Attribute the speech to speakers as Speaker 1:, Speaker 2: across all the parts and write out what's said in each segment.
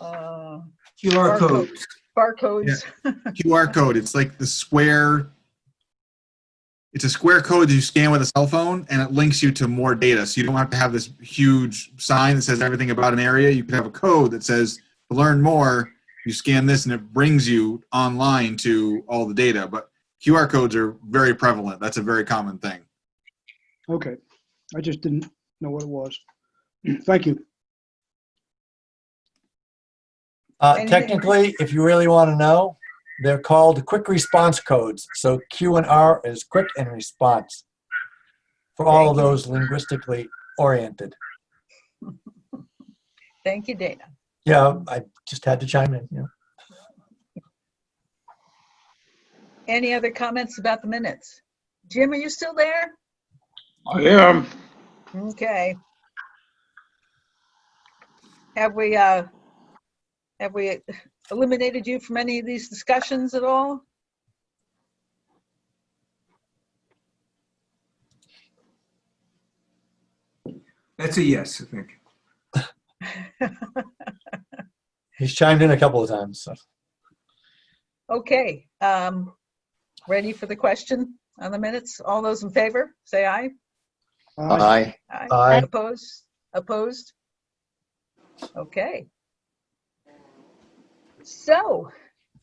Speaker 1: uh,
Speaker 2: QR code.
Speaker 1: barcodes. Barcodes.
Speaker 3: QR code. It's like the square. It's a square code that you scan with a cell phone, and it links you to more data. So you don't have to have this huge sign that says everything about an area. You could have a code that says to learn more. You scan this, and it brings you online to all the data. But QR codes are very prevalent. That's a very common thing.
Speaker 4: Okay, I just didn't know what it was. Thank you.
Speaker 5: Uh,
Speaker 1: Anything-
Speaker 5: technically, if you really want to know, they're called quick response codes. So Q and R is quick and response for all of those linguistically oriented.
Speaker 1: Thank you, Dana.
Speaker 5: Yeah, I just had to chime in. Yeah.
Speaker 1: Any other comments about the minutes? Jim, are you still there?
Speaker 6: I am.
Speaker 1: Okay. Have we, uh, have we eliminated you from any of these discussions at all?
Speaker 2: That's a yes, I think.
Speaker 5: He's chimed in a couple of times. So.
Speaker 1: Okay, um, ready for the question on the minutes? All those in favor, say aye.
Speaker 4: Aye.
Speaker 7: Aye.
Speaker 5: Aye.
Speaker 1: Opposed? Opposed? Okay. So,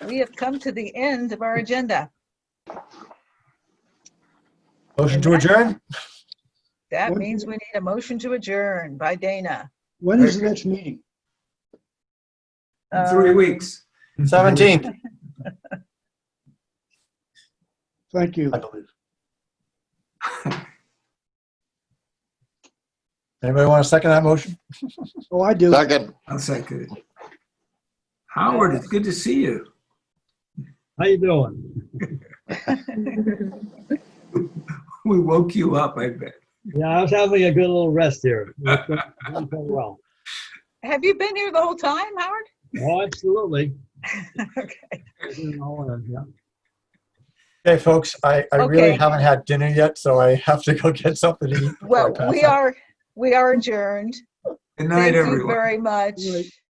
Speaker 1: we have come to the end of our agenda.
Speaker 5: Motion to adjourn?
Speaker 1: That
Speaker 4: What-
Speaker 1: means we need a motion to adjourn by Dana.
Speaker 4: When is the next meeting?
Speaker 2: In Three
Speaker 1: Uh,
Speaker 2: weeks.
Speaker 5: 17th,
Speaker 4: Thank you.
Speaker 5: I believe. Anybody want to second that motion?
Speaker 4: Oh, I do.
Speaker 7: Second.
Speaker 2: I'll second it. Howard, it's good to see you.
Speaker 8: How you doing?
Speaker 2: We woke you up, I bet.
Speaker 8: Yeah, I was having a good little rest here. It's been- been quite Well,
Speaker 1: Have you been here the whole time, Howard?
Speaker 8: oh, absolutely.
Speaker 1: Okay.
Speaker 8: It's been all in, yeah.
Speaker 5: Hey, folks, I, I really
Speaker 1: Okay.
Speaker 5: haven't had dinner yet, so I have to go get something to eat. before I
Speaker 1: Well,
Speaker 5: pass
Speaker 1: we
Speaker 5: out.
Speaker 1: are, we are adjourned.
Speaker 2: Good night,
Speaker 1: Thank you
Speaker 2: everyone.
Speaker 1: very much.
Speaker 4: Good night.